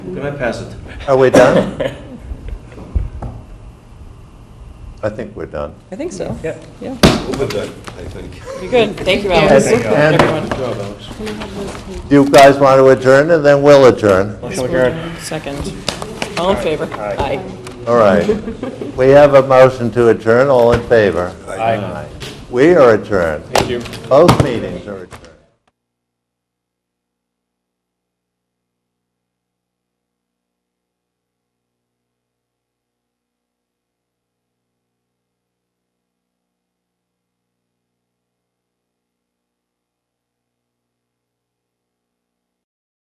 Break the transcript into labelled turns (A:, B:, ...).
A: Can I pass it?
B: Are we done? I think we're done.
C: I think so.
D: Yeah.
C: Yeah.
A: Overdone, I think.
C: You're good. Thank you,
B: And
C: Alex.
B: and
A: Good job, Alex.
B: do you guys want to adjourn, and then we'll adjourn?
D: Motion adjourned.
C: Second. All in favor?
D: Aye.
B: All right. We have a motion to adjourn, all in favor?
D: Aye.
B: We are adjourned.
D: Thank you.
B: Both meetings are adjourned.